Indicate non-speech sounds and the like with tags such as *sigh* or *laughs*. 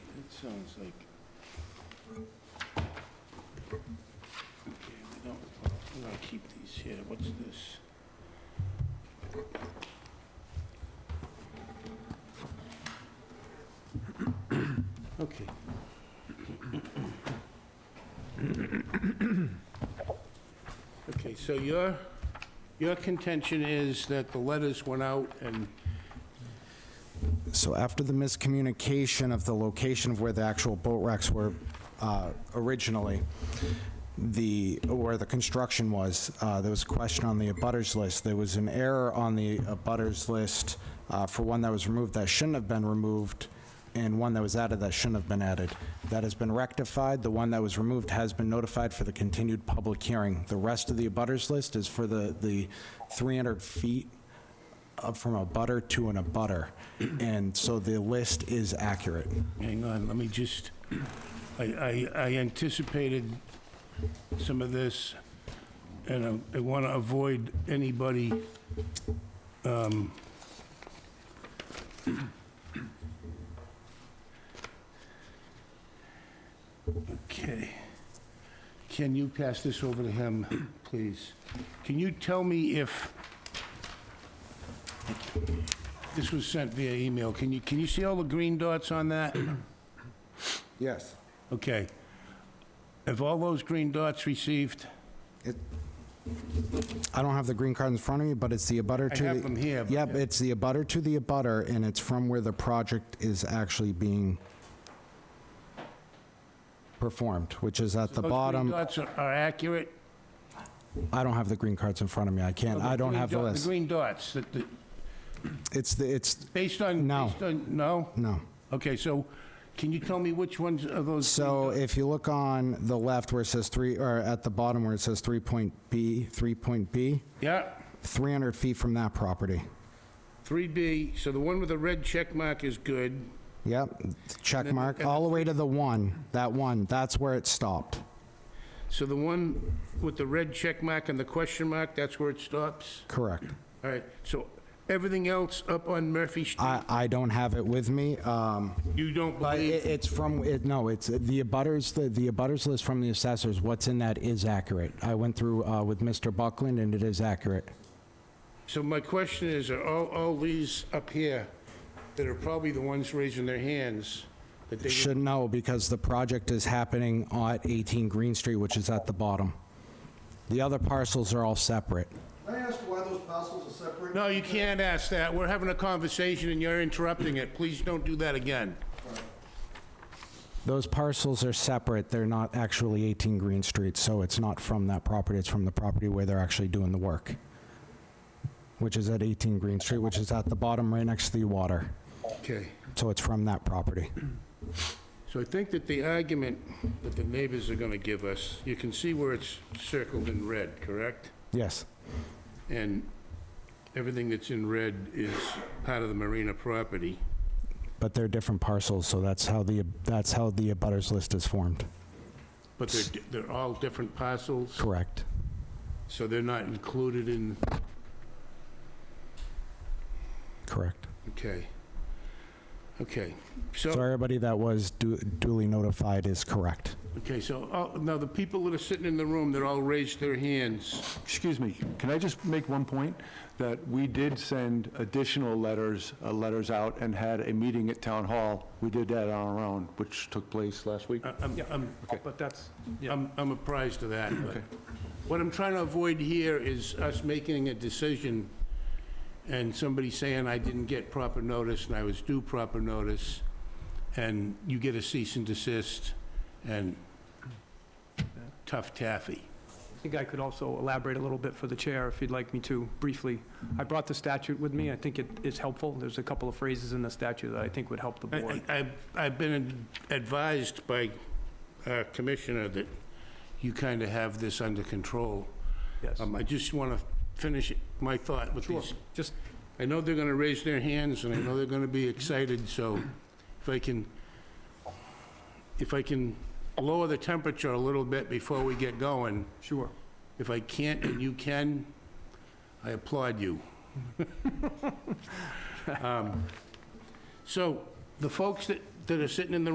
sounds like. Okay, we don't, I'm gonna keep these here, what's this? Okay. Okay, so your, your contention is that the letters went out and So after the miscommunication of the location of where the actual boat racks were uh, originally, the, where the construction was, uh, there was a question on the abutters list. There was an error on the abutters list uh, for one that was removed that shouldn't have been removed, and one that was added that shouldn't have been added. That has been rectified. The one that was removed has been notified for the continued public hearing. The rest of the abutters list is for the, the 300 feet up from a butter to an abutter, and so the list is accurate. Hang on, let me just, I, I, I anticipated some of this, and I- I want to avoid anybody, um, okay. Can you pass this over to him, please? Can you tell me if, this was sent via email, can you, can you see all the green dots on that? Yes. Okay. Have all those green dots received? I don't have the green card in front of me, but it's the abutter I to the... have them here, but- Yep, it's the abutter to the abutter, and it's from where the project is actually being performed, which is at the bottom. Those green dots are- are accurate? I don't have the green cards in front of me, I can't, I don't green have the dot- list. The green dots, that, the- It's, the it's, based on... No. based on- No? no. Okay, so can you tell me which ones of those? So if you look on the left where it says three, or at the bottom where it says three point B, three point B, Yeah, 300 feet from that property. 3B, so the one with the red check mark is good. Yep, check mark, all the way to the one, that one, that's where it stopped. So the one with the red check mark and the question mark, that's where it stops? Correct. All right, so everything else up on Murphy Street, I, I don't have it with me, um, you don't but believe? it, it's from, it, no, it's, the abutters, the, the abutters list from the assessors, what's in that is accurate. I went through, uh, with Mr. Buckland and it is accurate. So my question is, are all, all these up here that are probably the ones raising their hands, that they, Should know because the project is happening at 18 Green Street, which is at the bottom. The other parcels are all separate. Can I ask why those parcels are separate? no, you can't ask that. We're having a conversation and you're interrupting it. Please don't do that again. Those parcels are separate, they're not actually 18 Green Street, so it's not from that property, it's from the property where they're actually doing the work, which is at 18 Green Street, which is at the bottom right next to the water, Okay. so it's from that property. So I think that the argument that the neighbors are gonna give us, you can see where it's circled in red, correct? Yes, And everything that's in red is part of the Marina property. but they're different parcels, so that's how the, that's how the abutters list is formed, But they're, they're all different parcels, correct? so they're not included in, Correct. okay. Okay, so... So everybody that was du- duly notified is correct. Okay, so, all- now, the people that are sitting in the room, that all raised their hands. Excuse me, can I just make one point? That we did send additional letters, uh, letters out and had a meeting at Town Hall. We did that on our own, which took place last week. I- I'm, I'm, But that's, yeah, I'm I'm apprised of that, but what I'm trying to avoid here is us making a decision and somebody saying, I didn't get proper notice and I was due proper notice, and you get a cease and desist and tough taffy. I think I could also elaborate a little bit for the chair if you'd like me to briefly. I brought the statute with me. I think it is helpful. There's a couple of phrases in the statute that I think would help the board. I- I- I've I've been advised by our commissioner that you kind of have this under control. Yes. Um, I just want to finish my thought with these. Just, I know they're going to raise their hands, and I know they're going to be excited, so if I can, if I can lower the temperature a little bit before we get going, sure. if I can't and you can, I applaud you. *laughs* Um, So, the folks that, that are sitting in the